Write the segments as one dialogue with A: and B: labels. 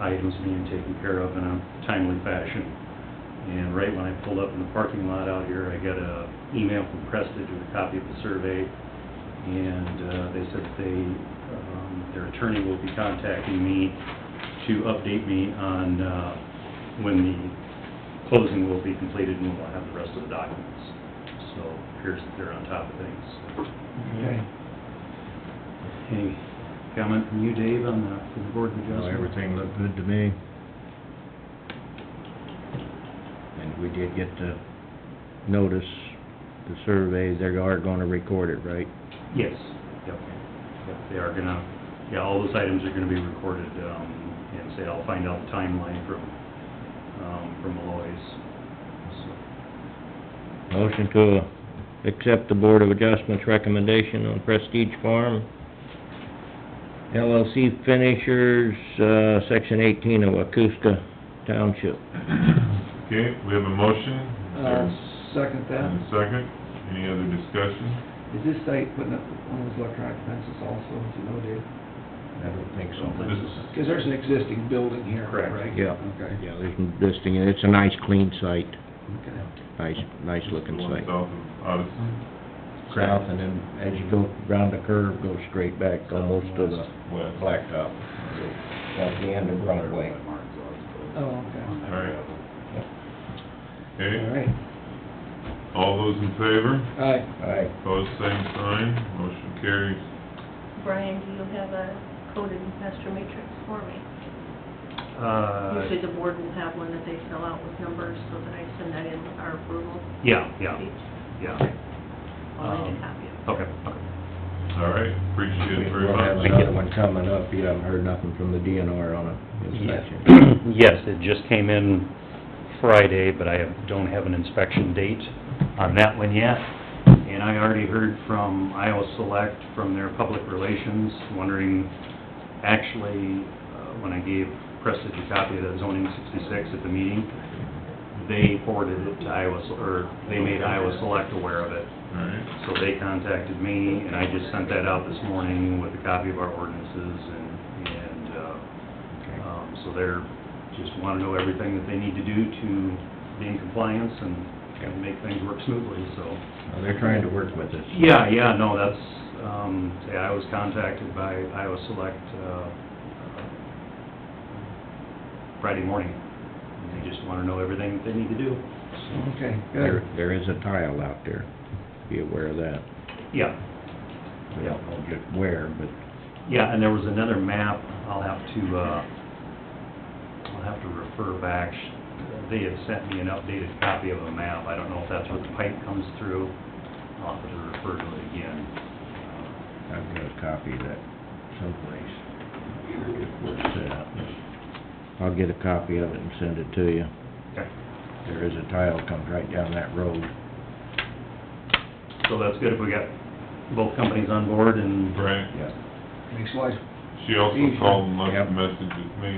A: items being taken care of in a timely fashion. And right when I pulled up in the parking lot out here, I got a email from Prestige with a copy of the survey, and uh, they said they, um, their attorney will be contacting me to update me on uh, when the closing will be completed, and we'll have the rest of the documents. So appears that they're on top of things.
B: Okay.
A: Any comment from you, Dave, on the, from the board of
C: No,
A: adjustment?
C: everything looked good to me. And we did get the notice, the survey, they are gonna record it, right?
A: Yes, yep, yep, they are gonna, yeah, all those items are gonna be recorded, um, and say, I'll find out the timeline from, um, from Aloys. So,
C: Motion to accept the Board of Adjustments recommendation on Prestige Farm LLC Finishers, uh, Section eighteen of Acusta Township.
D: Okay, we have a motion. Is there
B: I'll Uh, second that.
D: And a second. Any other discussion?
B: Is this site putting up one of those electronic fences also, as you know, Dave?
C: I don't think
D: This is,
B: Because there's an existing building here,
A: Correct.
B: right?
C: Yeah,
B: Okay.
C: yeah, there's, this thing, it's a nice clean site,
B: Okay.
C: nice, nice looking
D: the one
C: site.
D: south of Odyssey.
C: south, and then as you go round the curve, go straight back almost to the
D: West.
C: blacktop. At the end of Broadway.
B: Oh, okay.
D: All right.
B: All
D: Okay,
B: right. Uh.
D: all those in favor?
B: Aye.
C: Aye.
D: Opposed, same sign. Motion carries.
E: Brian, do you have a coded master matrix for me? Usually
A: Uh,
E: the board will have one that they fill out with numbers so that I send that in with our approval.
A: yeah, yeah,
E: each.
A: yeah,
E: I'll make
A: Um,
E: a copy of it.
A: okay, okay.
D: All right, appreciate it very
C: We'll have
D: much.
C: another one coming up, you haven't heard nothing from the DNR on it, inspection.
A: Yes, it just came in Friday, but I have- don't have an inspection date on that one yet. And I already heard from Iowa Select, from their public relations, wondering, actually, uh, when I gave Preston a copy of the zoning sixty-six at the meeting, they forwarded it to Iowa, Se- or they made Iowa Select aware of it.
D: All right,
A: So they contacted me, and I just sent that out this morning with a copy of our ordinances and, and, uh,
C: Okay.
A: um, so they're, just wanna know everything that they need to do to be in compliance and, and make things work smoothly, so.
C: Now, They're trying to work with us.
A: Yeah, yeah, no, that's, um, say, I was contacted by Iowa Select, uh, Friday morning. And They just wanna know everything that they need to do.
C: Mm-hmm.
B: Okay,
C: There,
B: good.
C: there is a tile out there, be aware of that.
A: Yeah,
C: We don't know just where, but
A: yeah, and there was another map, I'll have to, uh, I'll have to refer back. They had sent me an updated copy of a map. I don't know if that's where the pipe comes through. I'll have to refer to it again.
C: I've got a copy of that someplace. Sure it's where it's at. I'll get a copy of it and send it to you.
A: Uh, Okay,
C: There is a tile comes right down that road.
A: so that's good if we got both companies on board and...
D: Right.
C: Yeah.
B: Makes life,
D: She also called and left
C: Yep.
D: a message with me,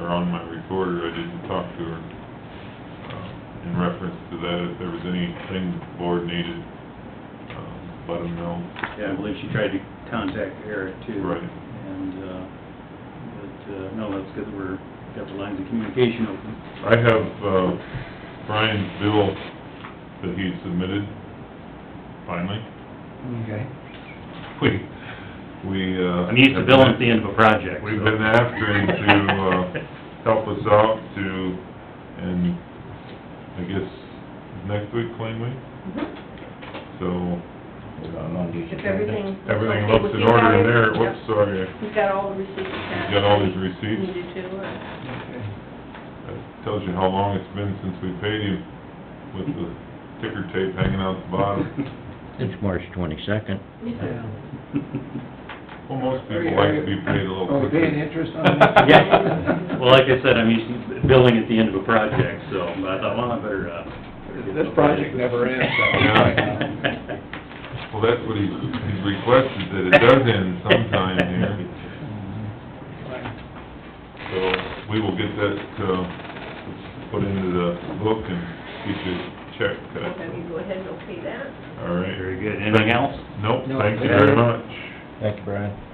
D: or on my recorder, I didn't talk to her, um, in reference to that, if there was anything the board needed, um, let them know.
A: Yeah, I believe she tried to contact Eric too.
D: Right.
A: And, uh, but, uh, no, that's good that we're, got the lines of communication open.
D: I have, uh, Brian's bill that he submitted, finally.
B: okay.
D: We, we, uh...
A: I'm used to billing at the end of a project.
D: We've
A: so-
D: been after him to, uh, help us out to, and I guess next week, claim week,
E: Mhm.
D: so...
C: Hold on, I'll get you
E: If
C: that.
E: everything...
D: Everything looks in order in there, whoops,
E: Yep.
D: sorry,
E: You've got all the receipts attached.
D: got all these receipts?
E: Needed to, uh, and
B: Okay.
D: that tells you how long it's been since we paid him with the ticker tape hanging out the bottom.
C: It's March twenty-second.
B: Yeah.
D: Well, most
B: Are you-
D: people
B: are
D: like to be
B: you-
D: paid a little
B: Oh,
D: quicker.
B: paying interest on that?
A: Yeah, well, like I said, I'm used to billing at the end of a project, so, but I thought, well, I better, uh...
B: This project never ends, so.
D: Well, that's what he's, he's requested, that it does end sometime here, so we will get that, uh, put into the book and get your check
E: I'll have
D: cut,
E: you go ahead and okay that.
D: all right?
A: Very good, anything else?
D: Nope,
B: No,
D: thank you
B: that's
D: very
B: it.
D: much.
C: Thank you, Brian.